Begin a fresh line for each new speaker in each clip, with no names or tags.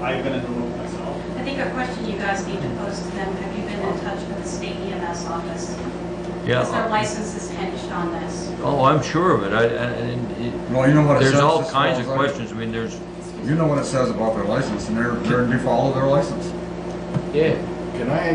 I've been in the loop myself.
I think a question you guys need to pose to them, have you been in touch with the state EMS office? Because their
Yeah,
license is hinged on this.
oh, I'm sure of it, I, and, and it-
Well, you know what it says.
there's all
as far
kinds of
as I-
questions, I mean, there's,
You know what it says about their license, and they're, they're, they follow their license.
Yeah, can I,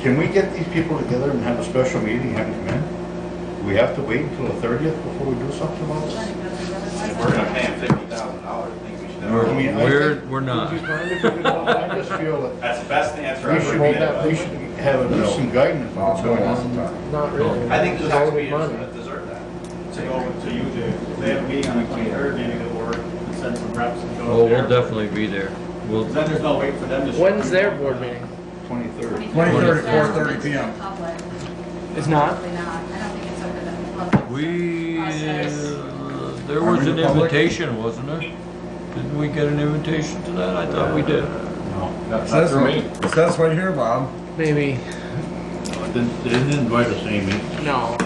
can we get these people together and have a special meeting, have them come in? We have to wait until the thirtieth before we do something about this?
If we're gonna pay him fifty thousand dollars, I think we should.
I
We're-
mean, I
we're-
think-
we're not.
Would you mind if we did that? I just feel that
That's the best answer
we
I've ever
should,
been.
have- we should have at least some guidance on what's going on.
Not really.
I think
It's
those tax
only
payers
money.
deserve that.
To go over to you, Dave. If they have a meeting on the twenty-third, maybe they'll work and send some reps and go.
oh, we'll
there.
definitely be there. We'll,
'Cause Then there's no wait for them to. show
When's
up.
their board meeting?
Twenty-third.
23rd, 4:30 p.m.
It's not?
Probably not. I don't think it's open to the public.
we, uh,
Process.
there
Are we
was an
the public?
invitation, wasn't there? Didn't we get an invitation to that? I thought we did.
No,
It
that's not
says,
for me.
it says right here, Bob.
Maybe,
No, it Didn't, they didn't invite us, Amy.
no.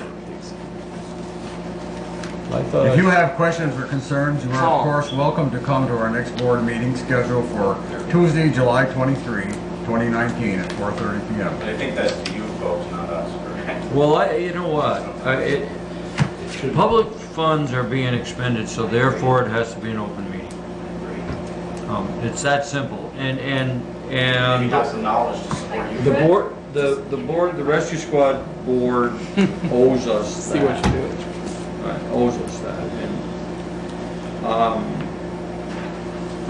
I thought,
If you
I-
have questions or concerns, you are
Call.
of course welcome to come to our next board meeting scheduled for Tuesday, July 23, 2019 at 4:30
But
PM.
I think that's to you folks, not us. correct?
well, I, you know what, I, it, public funds are being expended, so therefore it has to be an open meeting. Um, it's that simple, and, and, and.
Maybe not some knowledge to support you.
The board, the, the board, the rescue squad board owes us
See what
that,
you do.
Right, owes us that, and, um,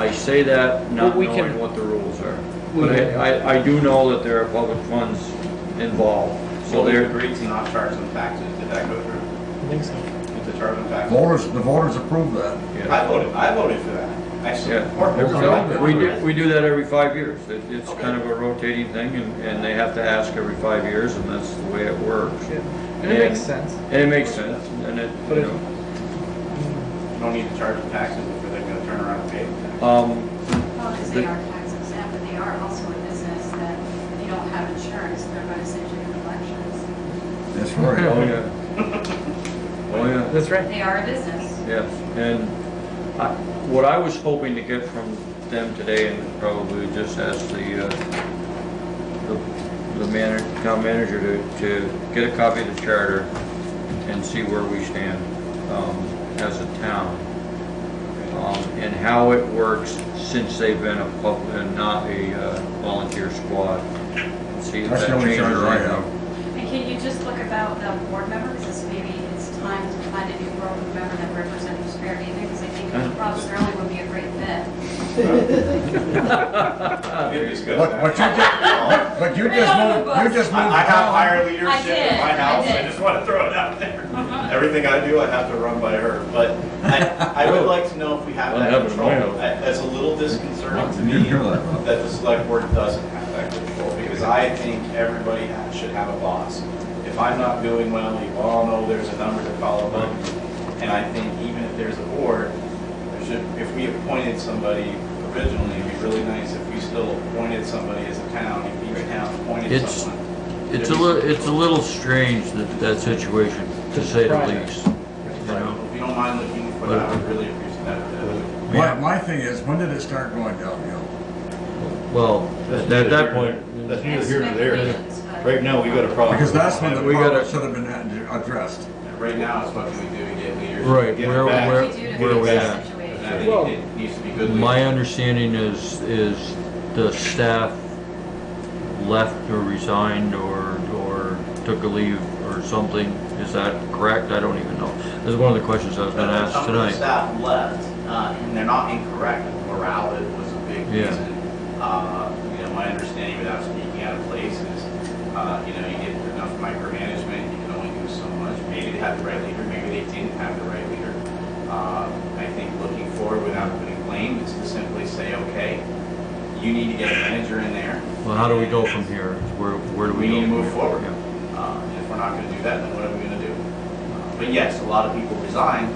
I say that not
Well, we can-
knowing what the rules are.
We
But
can-
I, I, I do know that there are public funds involved, so
So they
there,
agreed to not charge them taxes, did that go through?
I think so.
Did the charge them taxes?
Voters, the voters approved that.
I
yeah.
voted, I voted for that. I support.
There's a
Yeah,
lot
it.
So, we do, we do that every five years, it, it's kind of a rotating thing, and, and they have to ask every five years, and that's the way it works.
And it makes sense.
And it makes sense, and it,
But
you
it-
know.
You don't need to charge them taxes if they're gonna turn around and pay them taxes.
Um,
Well, because they are tax exempt, but they are also a business that if you don't have insurance, they're going to send you to collections.
That's right.
oh yeah. Oh yeah,
That's right.
They are a business.
yes, and I, what I was hoping to get from them today, and probably just ask the, uh, the, the manager, town manager to, to get a copy of the charter and see where we stand, um, as a town. Um, and how it works since they've been a pub, and not a uh, volunteer squad. See if
That's
that
the only
changes
charter I
anything.
have.
And can you just look about the board members, because maybe it's time to find a new board member that represents Fair Haven, because I think
Uh-huh.
Rob Sterling would be a great fit.
We can discuss
What,
that.
what you just, but you just moved, you just
I
moved.
I have higher
I
leadership
did,
in my
I
house, I
did.
just want to throw it out there. Everything I do, I have to run by her, but I, I would like to know if we have
Well,
that
heaven,
control.
I know.
I- That's a little disconcerting to
You
me,
didn't hear that, huh?
that the select board doesn't have that control, because I think everybody ha- should have a boss. If I'm not doing well, you all know there's a number to follow up, and I think even if there's a board, there should, if we appointed somebody originally, it'd be really nice if we still appointed somebody as a town, if each town appointed
It's-
someone.
It's a little, it's a little strange that, that situation, to say the
Right.
least.
If
You know?
you don't mind looking for that, I would really appreciate that.
My, my thing is, when did it start going downhill?
Well, at at that point,
That's neither here nor there.
Expectations, but-
Right now, we got a problem.
Because that's when the
We gotta-
problem should have been addressed.
Right now is what can we do to get leaders?
right,
Get
where,
back.
where,
What do we do to
where
fix
we
this
at?
situation?
And I
Well-
think it needs to be good
My
leaders.
understanding is, is the staff left or resigned or, or took a leave or something. Is that correct? I don't even know. That's one of the questions I was gonna ask
Some of the
tonight.
staff left, uh, and they're not incorrect, morality was a big
Yeah.
reason. Uh, You know, my understanding without speaking out of place is, uh, you know, you get enough micromanagement, you can only do so much. Maybe they had the right leader, maybe they didn't have the right leader. Uh, I think looking forward without putting blame is to simply say, okay, you need to get a manager in there.
Well, how do we go from here? Where, where do we
We
go?
need to
from
move
here?
forward.
Yeah.
Uh, and If we're not going to do that, then what are we going to do? Uh, But yes, a lot of people resigned,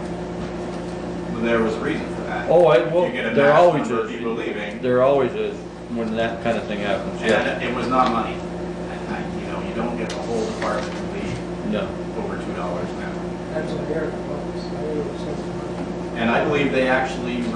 but there was a reason for that.
Oh, I, well,
You get a
there
mass
always
number of people
is,
leaving.
there always is when that kind of thing happens, yeah,
And it was not money. I- I- You know, you don't get the whole department to leave
no.
over $2 now. And I believe they actually